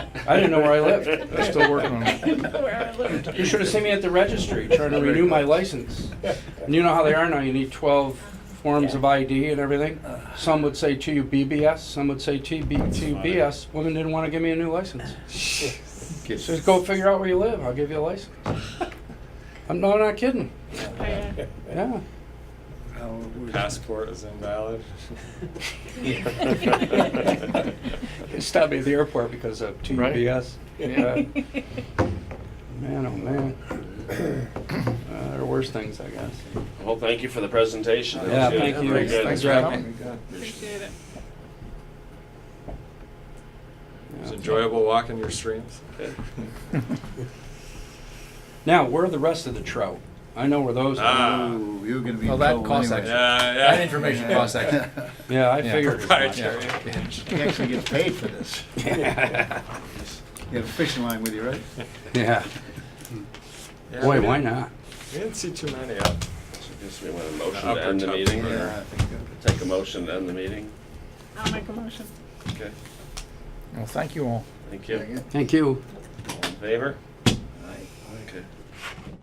I didn't know where I lived. They're still working on I it. didn't know where I lived. You should have seen me at the registry trying to renew my license. And you know how they are now, you need twelve forms of ID and everything. Some would say to you BBS, some would say TB TBS. Women didn't want to give me a new license. So Just go figure out where you live, I'll give you a license. I'm, no, I'm not kidding, Yeah. yeah. Passport is invalid. They stopped me at the airport because of TBS. Yeah. Man, oh man. Uh, There are worse things, I guess. Well, thank you for the presentation. That was Yeah, good. thank you. Very good. Thanks Thanks for for having coming. Appreciate it. It was Yeah. enjoyable walking your streams. Now, where are the rest of the trout? I know where those are. Ah. Ooh, you're gonna be. Well, in that trouble cost anyway. Yeah, yeah. That information costs that. Yeah, I Yeah. figured. as much. Proprietary. He actually gets paid for this. You have a fishing line with you, right? Yeah, Yeah, we boy, why didn't- not? We didn't see too many out. So Guess we want a motion Upper to end the top meeting, corner. or I think that- take a motion to end the meeting? I'll make a motion. Okay, Well, thank you all. thank you. Thank you. All in favor? Aye. Okay.